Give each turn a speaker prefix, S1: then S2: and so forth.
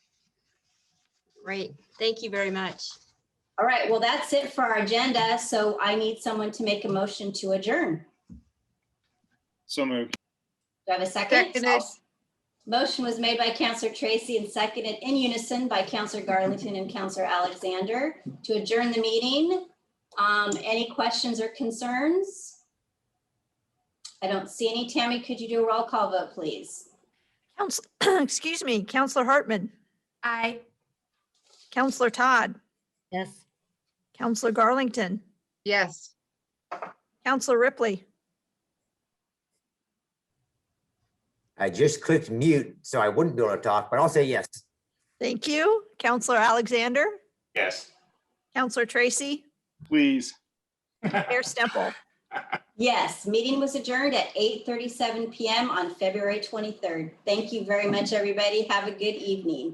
S1: Great. Thank you very much.
S2: All right, well, that's it for our agenda. So I need someone to make a motion to adjourn.
S3: So moved.
S2: Do I have a second?
S4: Seconded.
S2: Motion was made by Counselor Tracy and seconded in unison by Counselor Garlington and Counselor Alexander to adjourn the meeting. Um, any questions or concerns? I don't see any. Tammy, could you do a roll call vote, please?
S5: Counsel, excuse me, Counselor Hartman,
S4: Aye.
S5: Counselor Todd,
S6: Yes.
S5: Counselor Garlington,
S4: Yes.
S5: Counselor Ripley,
S7: I just clicked mute, so I wouldn't be able to talk, but I'll say yes.
S5: thank you, Counselor Alexander,
S3: Yes.
S5: Counselor Tracy,
S3: Please.
S5: Mayor Stemple.
S2: Yes, meeting was adjourned at 8:37 PM on February 23rd. Thank you very much, everybody. Have a good evening.